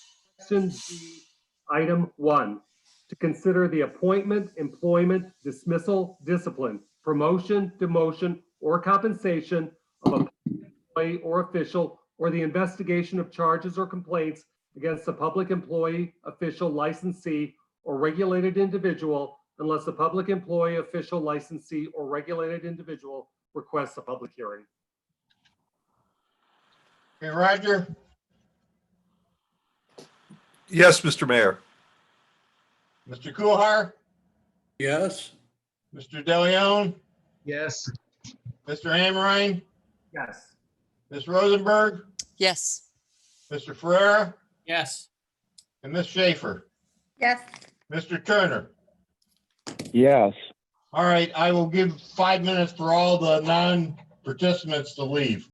Section G, Item 1, to consider the appointment, employment, dismissal, discipline, promotion, demotion, or compensation of a public employee or official, or the investigation of charges or complaints against a public employee, official, licensee, or regulated individual unless the public employee, official, licensee, or regulated individual requests a public hearing. Okay, Roger, Yes, Mr. Mayor. Mr. Kuhar, Yes, Mr. DeLeon, Yes. Mr. Amrine, Yes. Ms. Rosenberg, Yes. Mr. Ferrera, yes, and Ms. Schaefer. yes, Mr. Turner. yes, All right, I will give five minutes for all the non-participants to leave.